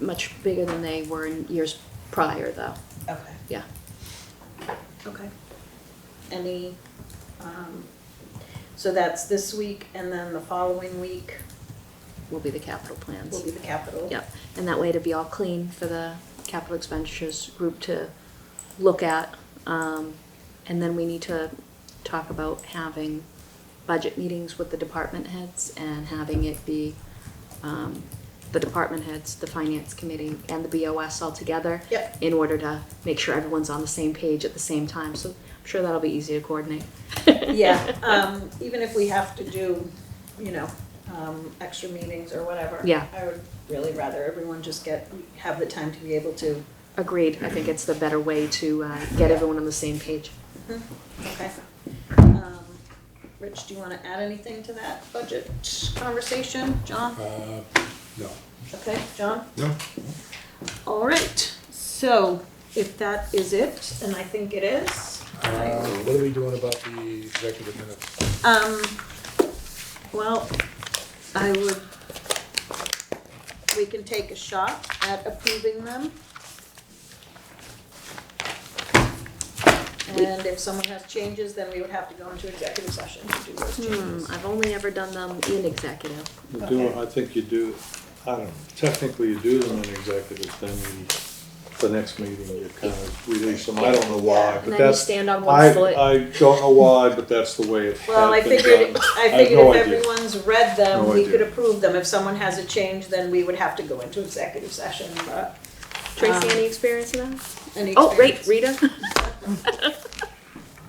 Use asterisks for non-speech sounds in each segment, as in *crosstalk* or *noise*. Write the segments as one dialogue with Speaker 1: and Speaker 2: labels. Speaker 1: much bigger than they were in years prior, though.
Speaker 2: Okay.
Speaker 1: Yeah.
Speaker 2: Okay. Any, um, so that's this week, and then the following week
Speaker 1: Will be the capital plans.
Speaker 2: will be the capital.
Speaker 1: Yep, and that way to be all clean for the capital expenditures group to look at. Um, And then we need to talk about having budget meetings with the department heads and having it be um, the department heads, the finance committee, and the BOS all together.
Speaker 2: Yep.
Speaker 1: In order to make sure everyone's on the same page at the same time, so I'm sure that'll be easy to coordinate.
Speaker 2: *laughs*
Speaker 1: *laughs*
Speaker 2: Yeah, um, even if we have to do, you know, um, extra meetings or whatever.
Speaker 1: Yeah.
Speaker 2: I would really rather everyone just get, have the time to be able to.
Speaker 1: Agreed, I think it's the better way to uh, get everyone on the same page.
Speaker 2: Okay. Um, Rich, do you wanna add anything to that budget conversation? John?
Speaker 3: Uh, No.
Speaker 2: Okay, John?
Speaker 3: No?
Speaker 2: All right, so if that is it, and I think it is,
Speaker 3: Uh, What are we doing about the executive minutes?
Speaker 2: um, well, I would, we can take a shot at approving them. And if someone has changes, then we would have to go into executive session to do those
Speaker 1: Hmm,
Speaker 2: changes.
Speaker 1: I've only ever done them in executive.
Speaker 4: You do,
Speaker 2: Okay.
Speaker 4: I think you do, I don't know, technically you do them in executive, then you, the next meeting, you kind of release them, I don't know why,
Speaker 1: And
Speaker 4: but
Speaker 1: then you
Speaker 4: that's.
Speaker 1: stand on
Speaker 4: I,
Speaker 1: one foot.
Speaker 4: I don't know why, but that's the way it
Speaker 2: Well, I
Speaker 4: had been
Speaker 2: figured,
Speaker 4: done.
Speaker 2: I
Speaker 4: have
Speaker 2: figured
Speaker 4: no
Speaker 2: if
Speaker 4: idea.
Speaker 2: everyone's read them,
Speaker 4: No
Speaker 2: we could
Speaker 4: idea.
Speaker 2: approve them. If someone has a change, then we would have to go into executive session, but.
Speaker 1: Tracy,
Speaker 2: um,
Speaker 1: any experience in that?
Speaker 2: Any
Speaker 1: Oh, right,
Speaker 2: experience?
Speaker 1: Rita? *laughs*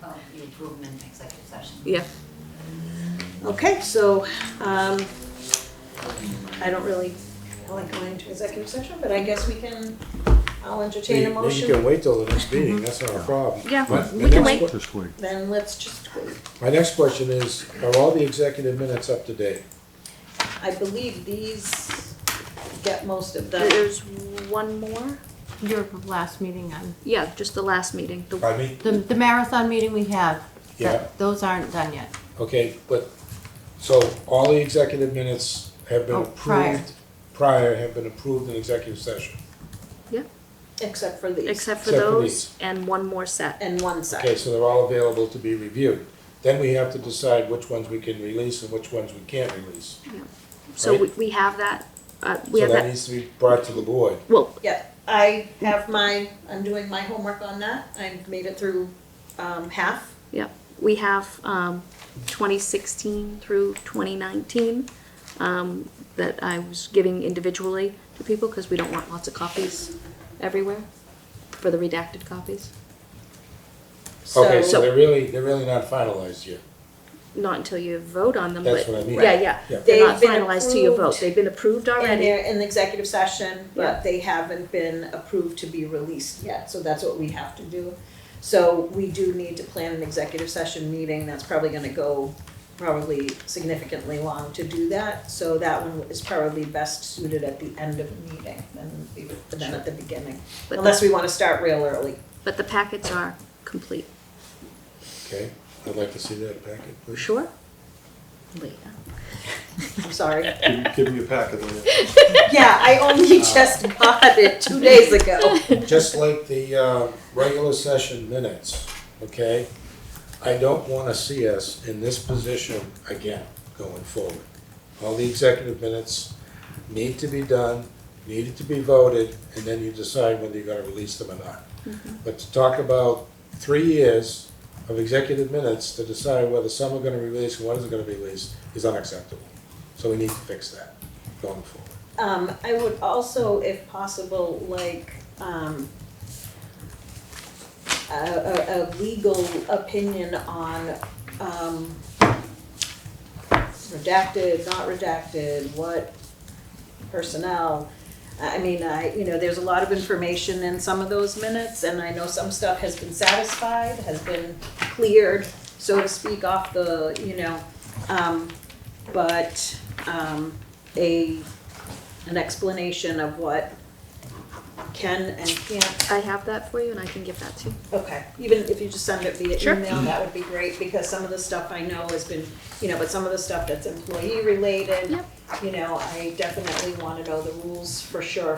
Speaker 5: Oh, you approve them in executive session.
Speaker 1: Yeah.
Speaker 2: Okay, so, um, I don't really like going to executive session, but I guess we can, I'll entertain a
Speaker 3: You- You can
Speaker 2: motion.
Speaker 3: wait till the next meeting, that's not a problem.
Speaker 1: Yeah,
Speaker 3: My-
Speaker 1: we
Speaker 3: my
Speaker 1: can
Speaker 3: next
Speaker 1: wait.
Speaker 3: que-
Speaker 2: Then let's just wait.
Speaker 3: My next question is, are all the executive minutes up to date?
Speaker 2: I believe these get most of the,
Speaker 1: Uh, There's one more?
Speaker 6: Your last meeting on,
Speaker 1: Yeah, just the last meeting. The-
Speaker 3: Pardon me?
Speaker 6: the, the marathon meeting we have.
Speaker 3: Yeah.
Speaker 6: that- Those aren't done yet.
Speaker 3: Okay, but, so all the executive minutes have been
Speaker 6: Oh, prior.
Speaker 3: approved, prior have been approved in executive session.
Speaker 2: except for these,
Speaker 1: Except for
Speaker 3: Except for
Speaker 1: those
Speaker 3: these.
Speaker 1: and one more set.
Speaker 2: and one
Speaker 3: Okay,
Speaker 2: side.
Speaker 3: so they're all available to be reviewed. Then we have to decide which ones we can release and which ones we can't release.
Speaker 1: So we, we have that, uh, we
Speaker 3: So
Speaker 1: have
Speaker 3: that
Speaker 1: that,
Speaker 3: needs to be brought to the board.
Speaker 1: well,
Speaker 2: Yeah, I have my, I'm doing my homework on that. I've made it through, um, half.
Speaker 1: yeah, we have, um, twenty sixteen through twenty nineteen, um, that I was giving individually to people because we don't want lots of copies everywhere for the redacted copies.
Speaker 3: Okay,
Speaker 2: So-
Speaker 3: so they're really, they're really not finalized yet.
Speaker 1: Not until you vote on them, but.
Speaker 3: That's what I mean.
Speaker 1: Yeah, yeah.
Speaker 3: Yeah.
Speaker 1: They're not
Speaker 2: They've been
Speaker 1: finalized till you vote.
Speaker 2: approved.
Speaker 1: They've been approved
Speaker 2: And
Speaker 1: already.
Speaker 2: they're in the executive session,
Speaker 1: Yeah.
Speaker 2: but they haven't been approved to be released yet, so that's what we have to do. So we do need to plan an executive session meeting, that's probably gonna go probably significantly long to do that. So that one is probably best suited at the end of the meeting than, the- than at the beginning,
Speaker 1: But
Speaker 2: unless
Speaker 1: the,
Speaker 2: we wanna start real early.
Speaker 1: but the packets are complete.
Speaker 3: Okay, I'd like to see that packet, please.
Speaker 1: Sure? Later.
Speaker 2: I'm sorry.
Speaker 1: *laughs*
Speaker 4: Give- Give me a packet of it.
Speaker 2: Yeah, I only just got it two days ago.
Speaker 3: Just like the uh, regular session minutes, okay? I don't want to see us in this position again going forward. All the executive minutes need to be done, needed to be voted, and then you decide whether you're going to release them or not. But to talk about three years of executive minutes to decide whether some are going to be released and what isn't going to be released is unacceptable. So we need to fix that going forward.
Speaker 2: Um, I would also, if possible, like, um, a, a, a legal opinion on, um, redacted, not redacted, what personnel. I I mean, I, you know, there's a lot of information in some of those minutes, and I know some stuff has been satisfied, has been cleared, so to speak, off the, you know, um, but, um, a, an explanation of what can and can't,
Speaker 1: I have that for you and I can give that to you.
Speaker 2: okay, even if you just send it via
Speaker 1: Sure.
Speaker 2: email, that would be great, because some of the stuff I know has been, you know, but some of the stuff that's employee related,
Speaker 1: Yep.
Speaker 2: you know, I definitely wanna know the rules for sure